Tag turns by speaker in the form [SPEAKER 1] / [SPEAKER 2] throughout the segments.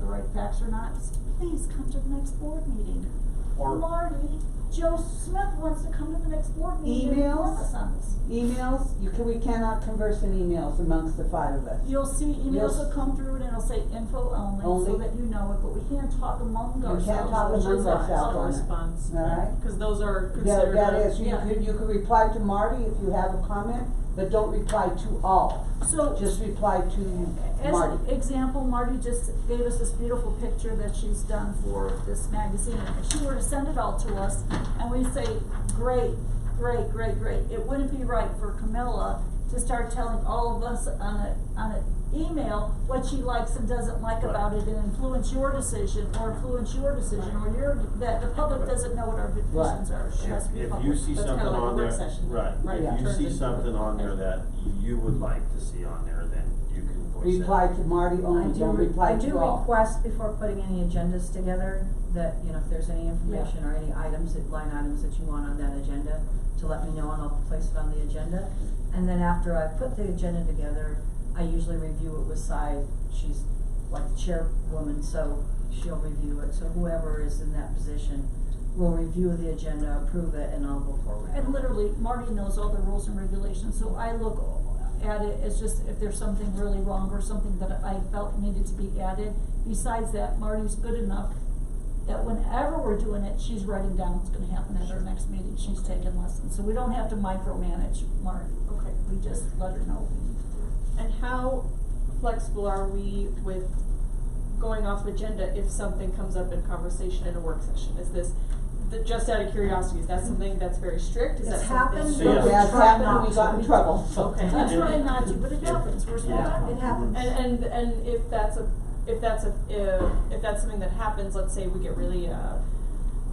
[SPEAKER 1] corporate tax or not, please come to the next board meeting.
[SPEAKER 2] Or,
[SPEAKER 1] Marty, Joe Smith wants to come to the next board meeting and inform
[SPEAKER 3] Emails? E-
[SPEAKER 1] us on this.
[SPEAKER 3] Emails, you can, we cannot converse in emails amongst the five of us.
[SPEAKER 1] You'll see emails
[SPEAKER 3] Yes.
[SPEAKER 1] will come through and it'll say info only, so
[SPEAKER 3] Only.
[SPEAKER 1] that you know it, but we can't talk among
[SPEAKER 3] You
[SPEAKER 1] ourselves.
[SPEAKER 3] can't talk
[SPEAKER 1] which
[SPEAKER 3] among
[SPEAKER 1] is ours.
[SPEAKER 3] ourselves on it.
[SPEAKER 4] response.
[SPEAKER 3] Alright?
[SPEAKER 4] Cause those are
[SPEAKER 3] That,
[SPEAKER 4] considered,
[SPEAKER 3] that
[SPEAKER 4] a-
[SPEAKER 3] is, you
[SPEAKER 4] yeah,
[SPEAKER 3] could, you could reply to Marty if you have a comment, but don't reply to all,
[SPEAKER 1] So.
[SPEAKER 3] just reply to
[SPEAKER 1] As an
[SPEAKER 3] Marty.
[SPEAKER 1] example, Marty just gave us this beautiful picture that she's done for this magazine. If she were to send it all to us and we say, great, great, great, great, it wouldn't be right for Camilla to start telling all of us on a, on an email what she likes and doesn't like
[SPEAKER 2] Right.
[SPEAKER 1] about it and influence your decision or influence your decision or your, that the public
[SPEAKER 2] Right.
[SPEAKER 1] doesn't know what our decisions are. It has to
[SPEAKER 2] if
[SPEAKER 1] be
[SPEAKER 2] if
[SPEAKER 1] public.
[SPEAKER 2] you see
[SPEAKER 4] That's kinda
[SPEAKER 2] something
[SPEAKER 4] like a
[SPEAKER 2] on there,
[SPEAKER 4] work session,
[SPEAKER 2] right,
[SPEAKER 4] right,
[SPEAKER 3] Yeah.
[SPEAKER 2] if you
[SPEAKER 4] turns
[SPEAKER 2] see
[SPEAKER 4] into-
[SPEAKER 2] something on there that you would like to see on there, then you can voice it.
[SPEAKER 3] Reply to Marty
[SPEAKER 5] I
[SPEAKER 3] only,
[SPEAKER 5] do,
[SPEAKER 3] don't
[SPEAKER 5] re-
[SPEAKER 3] reply
[SPEAKER 5] I
[SPEAKER 3] to
[SPEAKER 5] do
[SPEAKER 3] all.
[SPEAKER 5] request before putting any agendas together, that, you know, if there's any information or any items, that- line items that you want on that agenda, to let me know and I'll place it on the agenda. And then after I put the agenda together, I usually review it with Si, she's like the chairwoman, so she'll review it. So whoever is in that position will review the agenda, approve it, and I'll go forward.
[SPEAKER 1] And literally, Marty knows all the rules and regulations, so I look at it as just if there's something really wrong or something that I felt needed to be added. Besides that, Marty's good enough that whenever we're doing it, she's writing down what's gonna happen at our next meeting, she's taking lessons. So we don't have to micromanage Marty,
[SPEAKER 4] okay.
[SPEAKER 1] we just let her know.
[SPEAKER 4] And how flexible are we with going off agenda if something comes up in conversation in a work session? Is this, the, just out of curiosity, is that something that's very strict? Is that
[SPEAKER 5] Mm-hmm.
[SPEAKER 4] something?
[SPEAKER 5] It's happened,
[SPEAKER 2] So,
[SPEAKER 5] but
[SPEAKER 2] yeah.
[SPEAKER 5] we
[SPEAKER 3] Yeah, it's
[SPEAKER 5] try
[SPEAKER 3] happened,
[SPEAKER 5] not
[SPEAKER 3] we
[SPEAKER 5] to.
[SPEAKER 3] got in trouble, so.
[SPEAKER 4] Okay.
[SPEAKER 1] We try not to, but it happens, we're small
[SPEAKER 2] Yeah.
[SPEAKER 1] town.
[SPEAKER 5] It happens.
[SPEAKER 4] And, and, and if that's a, if that's a, if, if that's something that happens, let's say we get really, uh,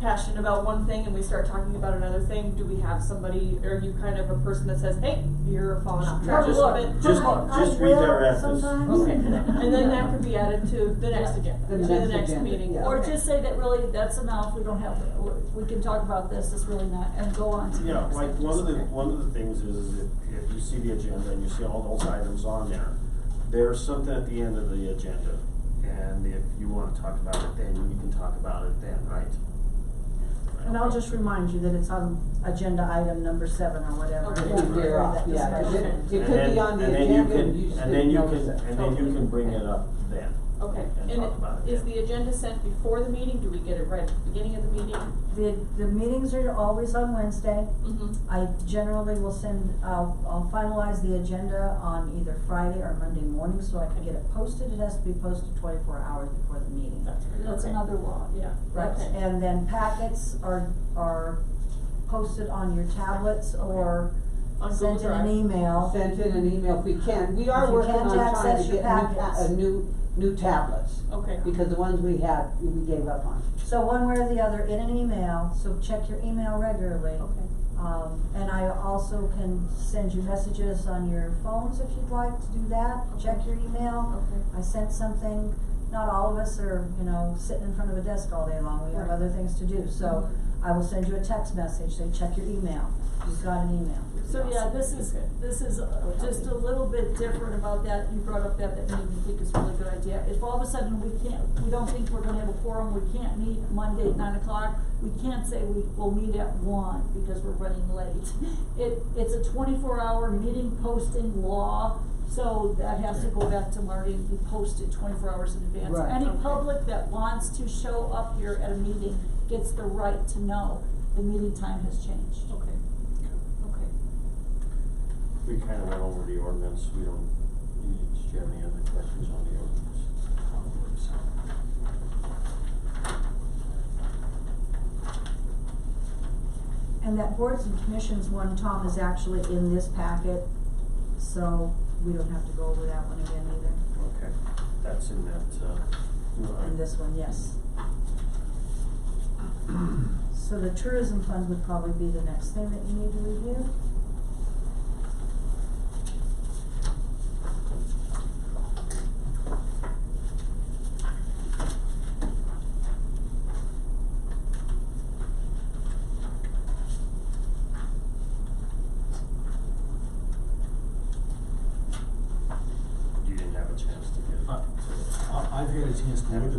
[SPEAKER 4] passionate about one thing and we start talking about another thing, do we have somebody, are you kind of a person that says, hey, you're falling off track a
[SPEAKER 2] Just-
[SPEAKER 4] little bit?
[SPEAKER 2] Just,
[SPEAKER 4] Come on."
[SPEAKER 2] just redirect this.
[SPEAKER 4] Okay, and then that could be added to the next
[SPEAKER 1] Yeah.
[SPEAKER 4] agenda,
[SPEAKER 3] The
[SPEAKER 4] to the
[SPEAKER 3] next
[SPEAKER 4] next
[SPEAKER 3] agenda,
[SPEAKER 4] meeting,
[SPEAKER 3] yeah.
[SPEAKER 1] Or
[SPEAKER 4] or just
[SPEAKER 1] just say that really, that's enough, we don't have, to- we can talk about this, it's really not, and go on to the
[SPEAKER 2] Yeah,
[SPEAKER 1] next.
[SPEAKER 2] like, one of the,
[SPEAKER 1] Okay.
[SPEAKER 2] one of the things is, if, if you see the agenda and you see all those items on there, there's something at the end of the agenda, and if you wanna talk about it then, you can talk about it then, right?
[SPEAKER 5] And I'll just remind you that it's on agenda item number seven or whatever.
[SPEAKER 4] Okay.
[SPEAKER 3] Yeah, we're off,
[SPEAKER 5] That
[SPEAKER 3] yeah, 'cause it,
[SPEAKER 5] discussion.
[SPEAKER 3] it could be on the agenda, and you just didn't
[SPEAKER 2] And
[SPEAKER 3] notice it.
[SPEAKER 2] then you can, and then you can, and then you can bring it up then.
[SPEAKER 4] Okay,
[SPEAKER 2] And
[SPEAKER 4] and
[SPEAKER 2] talk about it
[SPEAKER 4] is
[SPEAKER 2] then.
[SPEAKER 4] the agenda sent before the meeting, do we get it right at the beginning of the meeting?
[SPEAKER 5] The, the meetings are always on Wednesday. I generally will send, I'll, I'll finalize the agenda on either Friday or Monday morning, so I can get it posted, it has to be posted twenty-four hours before the meeting.
[SPEAKER 1] That's another law, yeah.
[SPEAKER 5] Right,
[SPEAKER 1] Okay.
[SPEAKER 5] and then packets are, are posted on your tablets or
[SPEAKER 4] On Google
[SPEAKER 5] sent in
[SPEAKER 4] Drive.
[SPEAKER 5] an email.
[SPEAKER 3] Send in an email if we can, we
[SPEAKER 5] If
[SPEAKER 3] are
[SPEAKER 5] you
[SPEAKER 3] working
[SPEAKER 5] can't
[SPEAKER 3] on trying
[SPEAKER 5] access
[SPEAKER 3] to
[SPEAKER 5] your
[SPEAKER 3] get new, ta-
[SPEAKER 5] packets.
[SPEAKER 3] uh, new, new tablets,
[SPEAKER 4] Okay,
[SPEAKER 3] because the ones we had, we gave up on.
[SPEAKER 5] So one way or the other, in an email, so check your email regularly.
[SPEAKER 4] okay.
[SPEAKER 5] Um, and I also can send you messages on your phones if you'd like to do that, check your email.
[SPEAKER 4] Okay.
[SPEAKER 5] I sent something, not all of us are, you know, sitting in front of a desk all day long, we have
[SPEAKER 4] Right.
[SPEAKER 5] other things to do, so I will send you a text message, say, check your email, you've got an email.
[SPEAKER 1] So, yeah, this is, this is uh, just a little bit different about that, you brought up that, that made me think it's a really good idea. If all of a sudden we can't, we don't think we're gonna have a forum, we can't meet Monday at nine o'clock, we can't say we will meet at one because we're running late. It, it's a twenty-four hour meeting posting law, so that has to go back to Marty and be posted twenty-four hours in advance.
[SPEAKER 3] Right.
[SPEAKER 1] Any
[SPEAKER 4] Okay.
[SPEAKER 1] public that wants to show up here at a meeting gets the right to know the meeting time has changed.
[SPEAKER 4] Okay, okay.
[SPEAKER 2] We kinda went over the ordinance, we don't, you- did you have any other questions on the ordinance? How it works.
[SPEAKER 5] And that boards and commissions one, Tom, is actually in this packet, so we don't have to go over that one again either,
[SPEAKER 2] Okay, that's in that, uh. no, I-
[SPEAKER 5] in this one, yes. So the tourism fund would probably be the next thing that you need to review.
[SPEAKER 2] You didn't have a chance to get.
[SPEAKER 6] Uh,
[SPEAKER 2] to-
[SPEAKER 6] I- I've had a chance to look at